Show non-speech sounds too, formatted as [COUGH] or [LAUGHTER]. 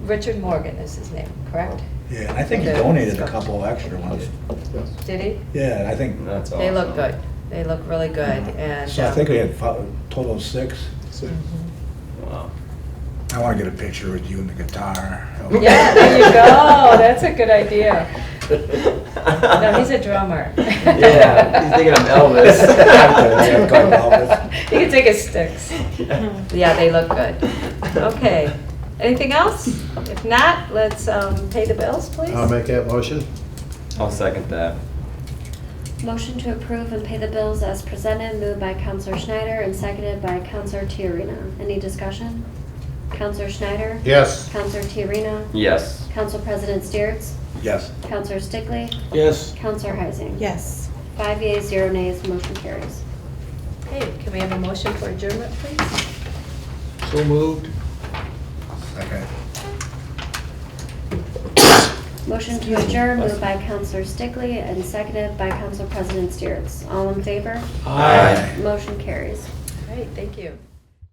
Richard Morgan is his name, correct? Oh. Yeah, and I think he donated a couple extra ones. Did he? Yeah, and I think, That's awesome. Mm-hmm. They look good. They look really good and. so I um, think we had fi- total of six. mhm. Wow. I want to get a picture with you and the guitar. Yeah, there you [LAUGHS] go. That's a good idea. um, No, he's a drummer. [LAUGHS] [LAUGHS] Yeah, he's thinking I'm Yeah, call him Elvis. Elvis. [LAUGHS] He can take his sticks. Yeah, they look good. Okay. Anything else? If not, let's um, pay the bills, please. I'll make that motion. I'll second that. Motion to approve and pay the bills as presented, moved by Counselor Schneider and seconded by Counselor Tiarena. Any discussion? Counselor Schneider? Yes. Counselor Tiarena? Yes. Council President Steeritz? Yes. Counselor Stickley? Yes. Counselor Heising? Yes. Five yeas, zero nays, motion carries. Okay, can we have a motion for adjournment, please? So moved. Second. Motion to adjourn, moved by Counselor Stickley and seconded by Council President Steeritz. All in favor? Aye. Motion carries. All right, thank you.